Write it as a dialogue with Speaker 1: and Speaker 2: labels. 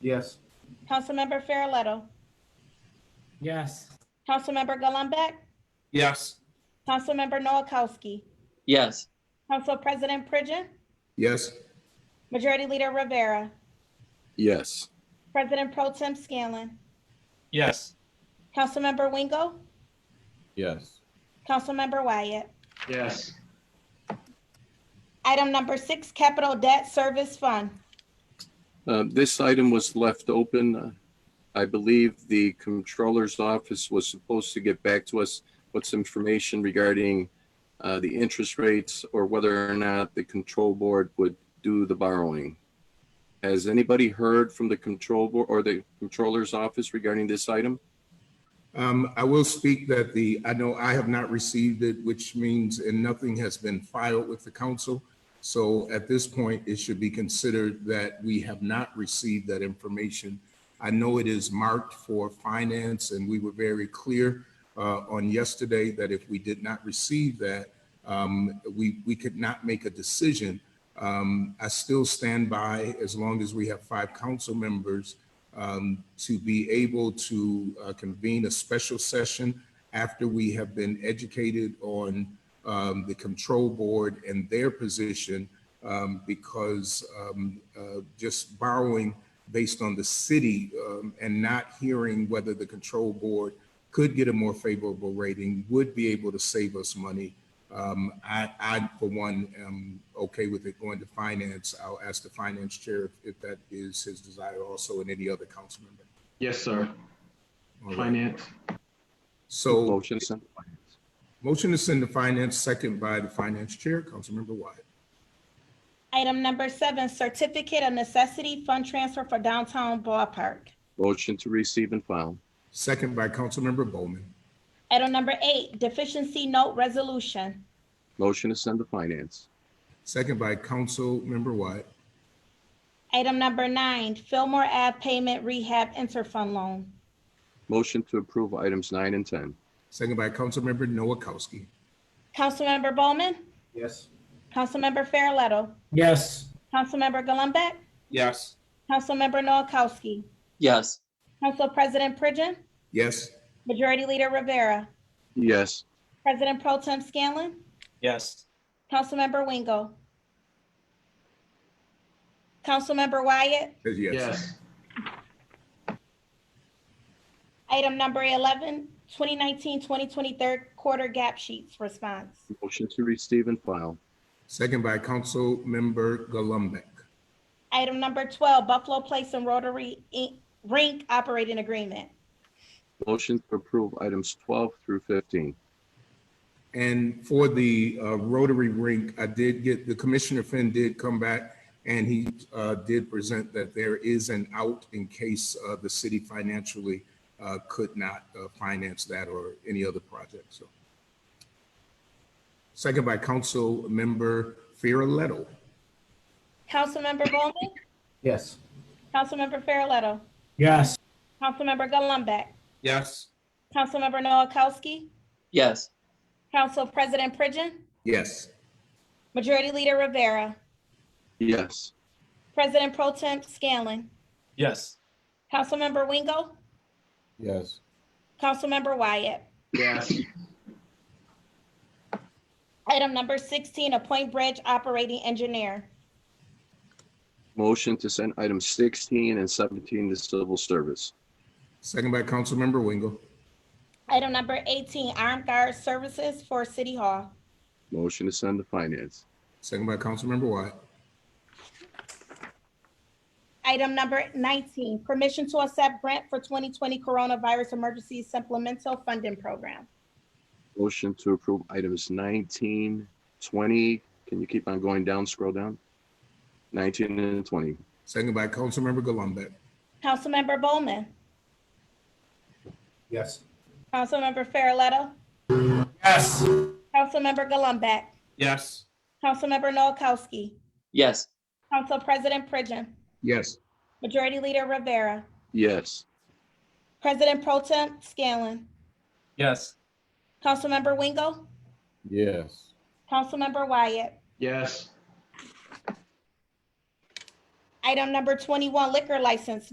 Speaker 1: Yes.
Speaker 2: Councilmember Farrelletto,
Speaker 3: Yes.
Speaker 2: Councilmember Gullumbeck,
Speaker 4: Yes.
Speaker 2: Councilmember Noakowski,
Speaker 5: yes,
Speaker 2: Council President Pridgen,
Speaker 4: Yes.
Speaker 2: Majority Leader Rivera,
Speaker 6: yes,
Speaker 2: President Pro Tem Scanlon,
Speaker 4: Yes.
Speaker 2: Councilmember Wingo,
Speaker 6: yes,
Speaker 2: Councilmember Wyatt.
Speaker 4: Yes.
Speaker 2: Item number six, Capital Debt Service Fund.
Speaker 6: Um, This item was left open. Uh, I believe the Controller's Office was supposed to get back to us with some information regarding uh, the interest rates or whether or not the Control Board would do the borrowing. Has anybody heard from the Control Board or the Controller's Office regarding this item?
Speaker 7: Um, I will speak that the, I know I have not received it, which means, and nothing has been filed with the council. So at this point, it should be considered that we have not received that information. I know it is marked for finance and we were very clear, uh, on yesterday that if we did not receive that, um, we, we could not make a decision. Um, I still stand by, as long as we have five council members, um, to be able to uh, convene a special session after we have been educated on um, the control board and their position, um, because um, uh, just borrowing based on the city um, and not hearing whether the control board could get a more favorable rating, would be able to save us money. Um, I, I, for one, am okay with it going to finance. I'll ask the finance chair if that is his desire also and any other council member.
Speaker 4: Yes, sir.
Speaker 7: All right.
Speaker 4: Finance.
Speaker 7: So
Speaker 6: Motion, send-
Speaker 7: motion to send to finance, second by the finance chair, Councilmember Wyatt.
Speaker 2: Item number seven, Certificate of Necessity Fund Transfer for Downtown Ballpark.
Speaker 6: motion to receive and file,
Speaker 7: Second by Councilmember Bowman.
Speaker 2: Item number eight, Deficiency Note Resolution.
Speaker 6: motion to send to finance,
Speaker 7: Second by Councilmember Wyatt.
Speaker 2: Item number nine, Fillmore Ave Payment Rehab Interfund Loan.
Speaker 6: motion to approve items nine and 10,
Speaker 7: Second by Councilmember Noakowski.
Speaker 2: Councilmember Bowman,
Speaker 1: Yes.
Speaker 2: Councilmember Farrelletto,
Speaker 3: Yes.
Speaker 2: Councilmember Gullumbeck,
Speaker 4: Yes.
Speaker 2: Councilmember Noakowski,
Speaker 5: yes,
Speaker 2: Council President Pridgen,
Speaker 7: Yes.
Speaker 2: Majority Leader Rivera,
Speaker 6: yes,
Speaker 2: President Pro Tem Scanlon,
Speaker 4: Yes.
Speaker 2: Councilmember Wingo. Councilmember Wyatt,
Speaker 7: Says yes.
Speaker 4: Yes.
Speaker 2: item number 11, 2019-2020 third quarter gap sheets response.
Speaker 6: motion to receive and file,
Speaker 7: Second by Councilmember Gullumbeck.
Speaker 2: Item number 12, Buffalo Place and Rotary Inc- Rink Operating Agreement.
Speaker 6: Motion to approve items 12 through 15.
Speaker 7: And for the uh, Rotary Rink, I did get, the Commissioner Finn did come back and he uh, did present that there is an out in case uh, the city financially uh, could not uh, finance that or any other project, so. Second by Councilmember Farrelletto.
Speaker 2: Councilmember Bowman,
Speaker 1: Yes.
Speaker 2: Councilmember Farrelletto,
Speaker 3: Yes.
Speaker 2: Councilmember Gullumbeck,
Speaker 4: Yes.
Speaker 2: Councilmember Noakowski,
Speaker 5: yes,
Speaker 2: Council President Pridgen,
Speaker 7: Yes.
Speaker 2: Majority Leader Rivera,
Speaker 6: Yes,
Speaker 2: President Pro Tem Scanlon,
Speaker 4: Yes.
Speaker 2: Councilmember Wingo,
Speaker 6: yes,
Speaker 2: Councilmember Wyatt.
Speaker 4: Yes.
Speaker 2: Item number 16, appoint bridge operating engineer.
Speaker 6: motion to send items 16 and 17 to civil service.
Speaker 7: Second by Councilmember Wingo.
Speaker 2: Item number 18, armed guard services for City Hall.
Speaker 6: Motion to send to finance.
Speaker 7: Second by Councilmember Wyatt.
Speaker 2: Item number 19, permission to accept grant for 2020 coronavirus emergency supplemental funding program.
Speaker 6: Motion to approve items 19, 20. Can you keep on going down, scroll down? 19 and 20.
Speaker 7: Second by Councilmember Gullumbeck.
Speaker 2: Councilmember Bowman,
Speaker 1: Yes.
Speaker 2: Councilmember Farrelletto,
Speaker 4: Yes.
Speaker 2: Councilmember Gullumbeck,
Speaker 4: Yes.
Speaker 2: Councilmember Noakowski,
Speaker 5: yes,
Speaker 2: Council President Pridgen,
Speaker 7: Yes.
Speaker 2: Majority Leader Rivera,
Speaker 6: Yes,
Speaker 2: President Pro Tem Scanlon,
Speaker 4: Yes.
Speaker 2: Councilmember Wingo,
Speaker 6: yes,
Speaker 2: Councilmember Wyatt,
Speaker 4: Yes.
Speaker 2: Item number 21, liquor license